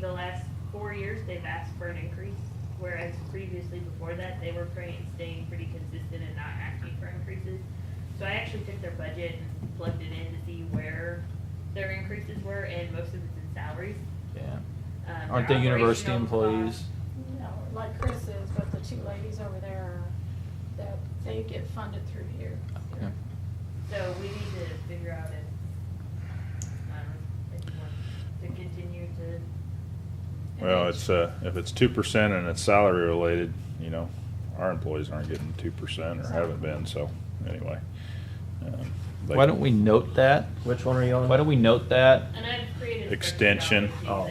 The last four years, they've asked for an increase, whereas previously before that, they were pretty, staying pretty consistent and not asking for increases. So I actually took their budget and plugged it in to see where their increases were, and most of it's in salaries. Yeah. Um, their Aren't they university operational employees? costs- No, like Chris is, but the two ladies over there, are- that, they get funded through here. Okay. So we need to figure out if, um, if you want to continue to. Well, it's, uh, if it's two percent and it's salary related, you know, our employees aren't getting two percent or haven't been, so, anyway. um, they- Why don't we note that? Which one are you on? Why don't we note that? And I've created. a spreadsheet Extension. that shows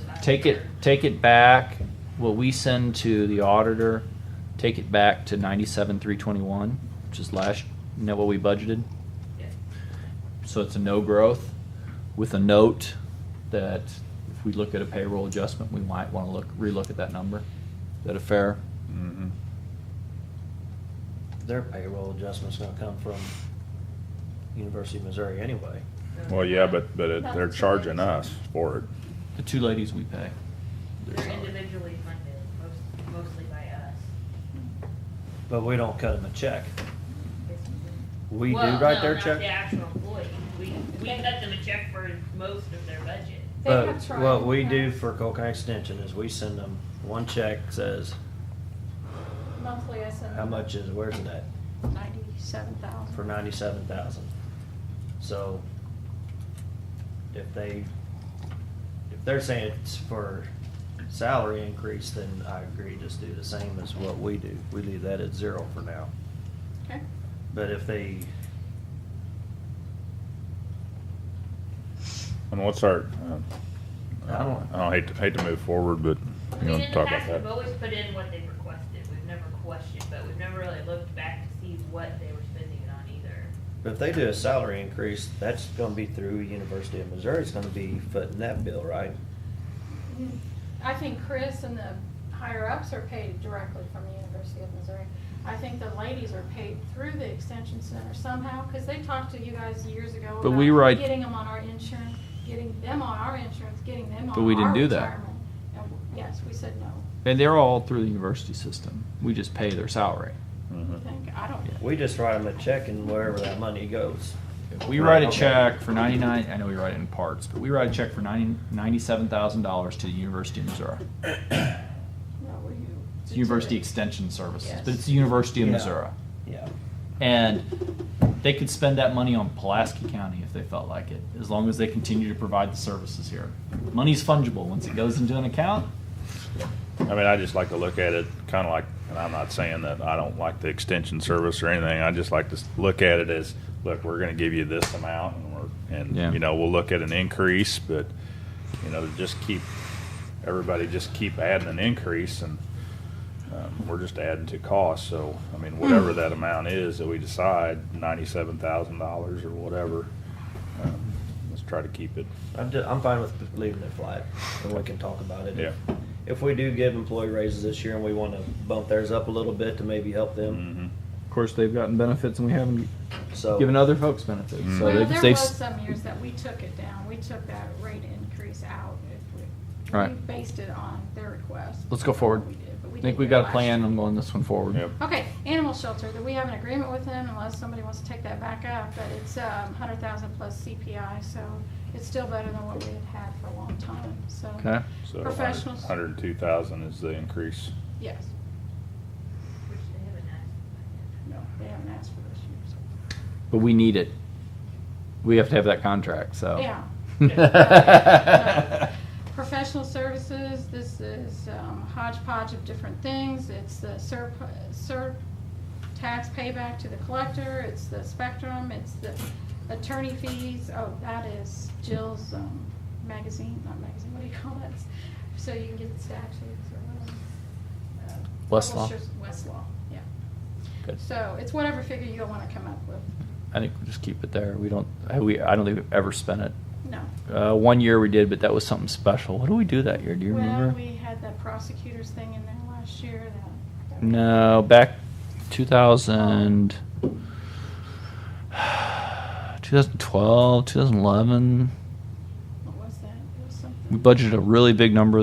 the last Take it, year. take it back, what we send to the auditor, take it back to ninety-seven, three twenty-one, which is last, you know what we budgeted? Yeah. So it's a no growth with a note that if we look at a payroll adjustment, we might wanna look, relook at that number. Is that a fair? Mhm. Their payroll adjustment's gonna come from University of Missouri anyway. Well, yeah, but, but it- they're charging us for it. The two ladies we pay. their They're salary. individually funded, most, mostly by us. But we don't cut them a check. We do Well, write no, their not check. the actual employee, we, we cut them a check for most of their budget. They have But tried what we to do have for Cole County Extension is we send them one check says, Monthly, I send. how much is, where's it at? Ninety-seven thousand. For ninety-seven thousand. So if they, if they're saying it's for salary increase, then I agree, just do the same as what we do. We leave that at zero for now. Okay. But if they, And what's our, um, I don't- I don't hate to, hate to move forward, but I you mean, want in to the talk about past, we've that? always put in what they requested, we've never questioned, but we've never really looked back to see what they were spending it on either. But if they do a salary increase, that's gonna be through University of Missouri, it's gonna be footing that bill, right? Mm-hmm. I think Chris and the higher-ups are paid directly from the University of Missouri. I think the ladies are paid through the extension center somehow, because they talked to you guys years ago But we write- about getting them on our insurance, getting them on our insurance, getting them on our retirement. But we didn't do that. And Yes, we said no. And they're all through the university system. We just pay their salary. I Mhm. think, I don't. We just write them a check and wherever that money goes. If we write a Right. check for ninety-nine, I know we write it in parts, but we write a check for ninety, ninety-seven thousand dollars to the University of Missouri. No, were you? It's University Extension Services, Yes. but it's the University of Yeah. Missouri. Yeah. And they could spend that money on Pulaski County if they felt like it, as long as they continue to provide the services here. Money's fungible. Once it goes into an account, I mean, I just like to look at it kind of like, and I'm not saying that I don't like the extension service or anything. I just like to s- look at it as, look, we're going to give you this amount, and we're, and Yeah. you know, we'll look at an increase, but you know, just keep everybody just keep adding an increase, and um, we're just adding to cost. So, I mean, whatever that amount is that we decide, ninety-seven thousand dollars or whatever, um, let's try to keep it. I'm, ju- I'm fine with leaving it flat, and we can talk about it. Yeah. If we do give employee raises this year and we wanna bump theirs up a little bit to maybe help them, Mhm. of course, they've gotten benefits and we haven't so. given other folks benefits. Mm. So Well, they've, there they've- was some years that we took it down, we took that rate increase out. If we- We Right. based it on their request. Let's go forward. We did, but I we think didn't we've got a last plan year. on going this one forward. Yep. Okay, animal shelter, do we have an agreement with them unless somebody wants to take that back up? But it's um hundred thousand plus CPI, so it's still better than what we had had for a long time, so. Okay. So, Professionals, Hundred and two thousand is the increase. yes, Which they haven't asked. no, they haven't asked for this year, But we need it. We have to have that contract, so. so. Yeah. Professional services, this is um, hodgepodge of different things. It's the SERP, SERP tax payback to the collector, it's the spectrum, it's the attorney fees. Oh, that is Jill's um, magazine, not magazine, what do you call that? So you can get the statutes or whatever. Uh, Westlaw? Publishers- Westlaw, yeah. Good. So it's whatever figure you want to come up with. I think we'll just keep it there. We don't, I- we, I don't think we've ever spent it. No. Uh, one year we did, but that was something special. What did we do that year? Do you Well, remember? we had the prosecutor's thing in there last year that. that we- No, back 2000, 2012, 2011. What was that? It was something. We budgeted a really big number